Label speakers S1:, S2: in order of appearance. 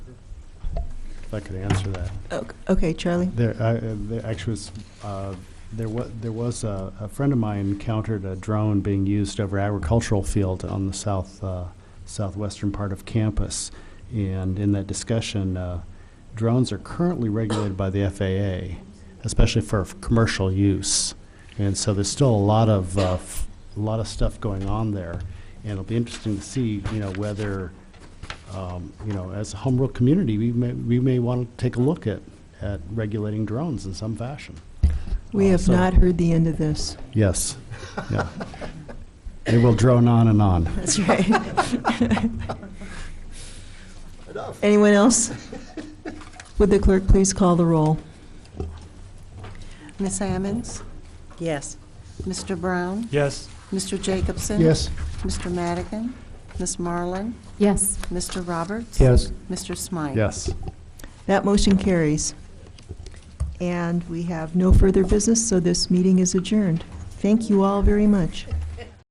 S1: if I could answer that.
S2: O- Okay, Charlie?
S1: There, I- uh, there actually was, uh, there was, there was a, a friend of mine encountered a drone being used over agricultural field on the south, uh, southwestern part of campus. And in that discussion, uh, drones are currently regulated by the FAA, especially for f- commercial use. And so there's still a lot of, uh, f- a lot of stuff going on there. And it'll be interesting to see, you know, whether, um, you know, as a home rule community, we may, we may want to take a look at, at regulating drones in some fashion.
S2: We have
S1: Awesome.
S2: not heard the end of this.
S1: Yes. Yeah. It will drone on and on.
S2: That's right.
S3: Enough.
S2: Anyone else? Would the clerk please call the roll?
S4: Miss Ammons?
S5: Yes.
S4: Mr. Brown?
S6: Yes.
S4: Mr. Jacobson? Mr. Madigan? Miss Marlin?
S5: Yes.
S4: Mr. Roberts?
S6: Yes.
S4: Mr. Smythe?
S1: Yes.
S2: That motion carries. And we have no further business, so this meeting is adjourned. Thank you all very much.